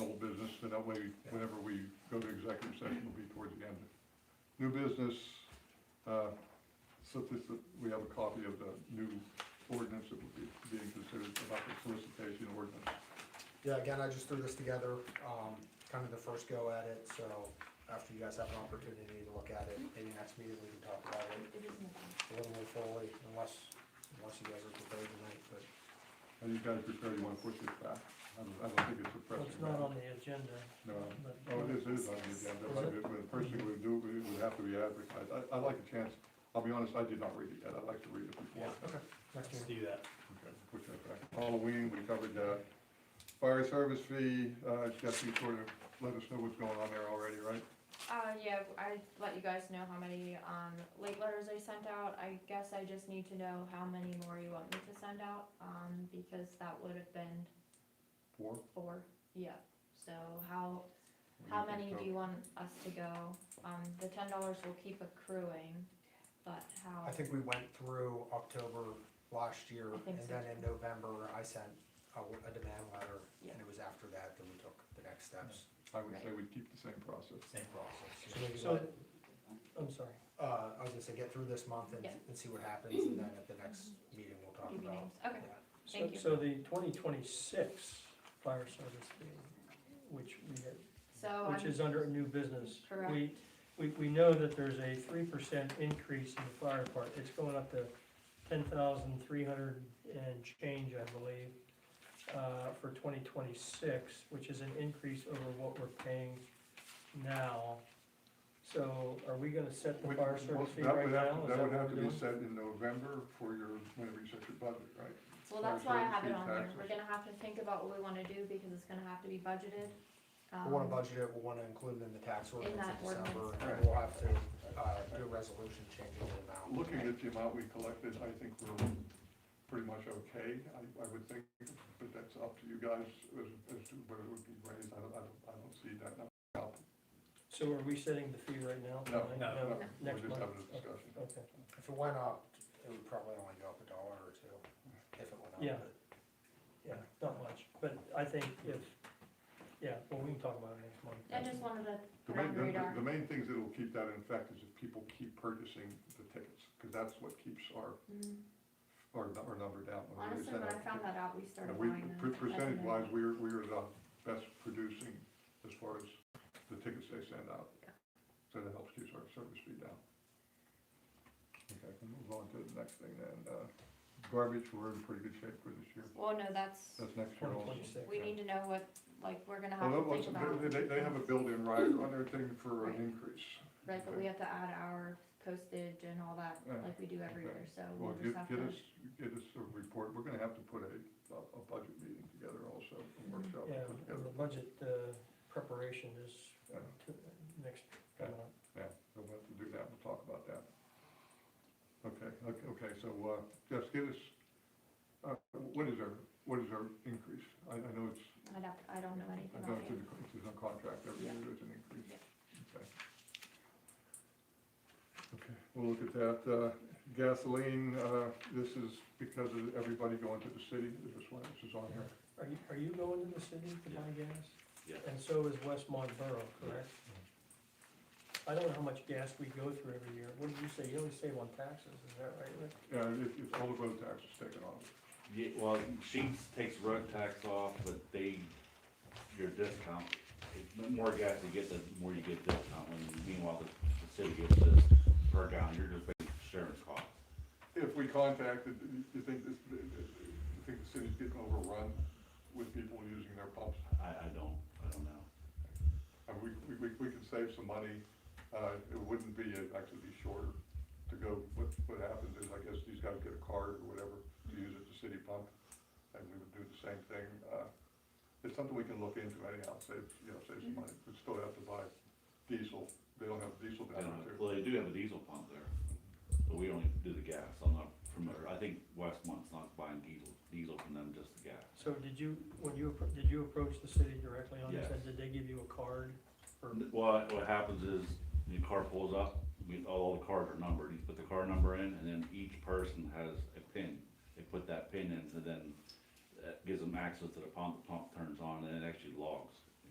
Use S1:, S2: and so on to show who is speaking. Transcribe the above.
S1: old business, then that way, whenever we go to executive session, it'll be towards the end. New business, uh, so this, we have a copy of the new ordinance that would be being considered about the solicitation ordinance.
S2: Yeah, again, I just threw this together, um, kind of the first go at it, so after you guys have an opportunity to look at it, maybe next meeting we can talk about it
S3: It isn't.
S2: a little more fully, unless, unless you guys are prepared tonight, but.
S1: Are you guys prepared, you wanna push this back? I don't, I don't think it's a
S4: Well,
S1: pressing
S4: it's not on
S1: matter.
S4: the agenda,
S1: No,
S4: but.
S1: oh, it is, it is on the agenda, but it- but the first thing we do, we would have to be advertised. I, I'd like a chance, I'll be honest, I did not read it yet, I'd like to read it before.
S2: Okay. Next
S5: Let's
S2: meeting.
S5: do that.
S1: Okay, push that back. Halloween, we covered that. Fire service fee, uh, Jeff, you sort of let us know what's going on there already, right?
S3: Uh, yeah, I let you guys know how many, um, late letters I sent out, I guess I just need to know how many more you want me to send out, um, because that would have been
S1: Four?
S3: four, yeah. So how, how many do you want us to go? Um, the ten dollars will keep accruing, but how?
S2: I think we went through October last year,
S3: I think
S2: and
S3: so.
S2: then in November, I sent a, a demand letter,
S3: Yeah.
S2: and it was after that that we took the next steps.
S1: I would say we keep the same process.
S5: Same process.
S2: So maybe,
S4: So,
S2: let-
S4: I'm sorry,
S2: uh, I was gonna say, get through this month and,
S3: Yeah.
S2: and see what happens, and then at the next meeting, we'll talk
S3: Give you
S2: about.
S3: names, okay,
S2: that.
S4: so,
S3: Thank you.
S4: so the twenty twenty-six fire service fee, which we had,
S3: so um,
S4: which
S3: Oh, I'm,
S4: is under new business.
S3: Correct.
S4: We, we, we know that there's a three percent increase in the fire department, it's going up to ten thousand three hundred and change, I believe, uh, for twenty twenty-six, which is an increase over what we're paying now. So are we gonna set the
S1: Would-
S4: fire
S1: well,
S4: service fee
S1: that
S4: right
S1: would have-
S4: now? Is
S1: That would
S4: what
S1: have
S4: we're
S1: to be
S4: doing?
S1: set in November for your, whenever you set your budget, right? fire
S3: well, that's why I
S1: service
S3: have it
S1: fee
S3: on there,
S1: taxes.
S3: we're gonna have to think about what we wanna do, because it's gonna have to be budgeted.
S2: We'll wanna
S3: Um,
S2: budget it, we'll wanna include it in the tax ordinance
S3: that
S2: in December,
S3: ordinance.
S2: and
S1: Right.
S2: we'll have to, uh, do a resolution changing the amount.
S1: Looking at the amount we collected, I think we're pretty much okay, I, I would think, but that's up to you guys as, as to whether it would be raised, I don't, I don't, I don't see that number. out.
S4: So are we setting the fee right now?
S1: No,
S4: Like,
S5: no,
S1: No, We're
S4: Next
S1: just
S4: month?
S1: having a discussion.
S4: Okay,
S2: If it went up, it would probably only go up a dollar or two, if it went up.
S4: Yeah.
S2: but-
S4: yeah, not much, but I think if, yeah, well, we can talk about it next month.
S3: I just wanted to
S1: The
S3: Put it
S1: main,
S3: on
S1: the,
S3: radar.
S1: the main things that'll keep that in effect is if people keep purchasing the tickets, because that's what keeps our,
S3: Mm,
S1: our, nu- our number down. When we
S3: Honestly,
S1: sent
S3: when I
S1: out-
S3: found that out, we started
S1: And we,
S3: buying them.
S1: per-
S3: as a
S1: percentage
S3: minimum.
S1: wise, we're, we're the best producing as far as the tickets they send out. So that helps keep our service fee down. Okay, can move on to the next thing then, uh, garbage, we're in pretty good shape for this year,
S3: Well, no, that's,
S1: that's next year
S4: Twenty
S1: also.
S4: twenty-six.
S3: we need to know what, like, we're gonna have
S1: Although,
S3: to think
S1: also,
S3: about,
S1: they, they- they have a built-in rider on their thing for an
S3: Right.
S1: increase.
S3: right, but we have to add our postage and all that,
S1: Yeah.
S3: like we do every
S1: Okay.
S3: year, so
S1: Well,
S3: we'll
S1: get,
S3: just have to.
S1: get us, get us a report, we're gonna have to put a, a a budget meeting together also, a
S3: Mm-hmm.
S1: workshop to
S4: Yeah,
S1: put
S4: and
S1: together.
S4: the budget uh, preparation is
S1: Yeah.
S4: to- next, coming up.
S1: Yeah, so we'll have to do that, we'll talk about that. Okay, okay, okay, so, uh, just get us, uh, what is our, what is our increase? I, I know it's,
S3: I'd have, I don't know anything
S1: I know
S3: about
S1: it's in, the- it's in the contract, every year there's an increase. Okay. Okay, we'll look at that, uh, gasoline, uh, this is because of everybody going to the city, this is why this is on here.
S4: Are you, are you going to the city to buy gas?
S5: Yeah.
S4: And so is West Monborough, correct? I don't know how much gas we go through every year. What did you say? You only save on taxes, is that right, Rick?
S1: Yeah, it, it's all the road taxes taken off.
S6: Yeah, well, Sheets takes road tax off, but they, your discount, the more gas you get, the more you get discount, when meanwhile, the, the city gets this per gallon, you're just paying insurance costs.
S1: If we contacted, you think this, you think the city's getting overrun with people using their pumps?
S6: I, I don't, I don't know.
S1: And we, we, we we could save some money, uh, it wouldn't be, it'd actually be shorter to go, what, what happens is, I guess these guys get a card or whatever to use at the city pump, and we would do the same thing, uh, it's something we can look into anyhow, save, you know, save some money, we still have to buy diesel, they don't have diesel
S6: I
S1: down
S6: don't know.
S1: there.
S6: Well, they do have a diesel pump there, but we only do the gas, I'm not familiar, I think Westmont's not buying diesel, diesel from them, just the gas.
S4: So did you, when you, appro- did you approach the city directly on this?
S6: Yes.
S4: And did they give you a card? or-
S6: What, what happens is, the car pulls up, we, all the cars are numbered, you put the car number in, and then each person has a pin. They put that pin in, and then that gives them access to the pump, the pump turns on, and it actually logs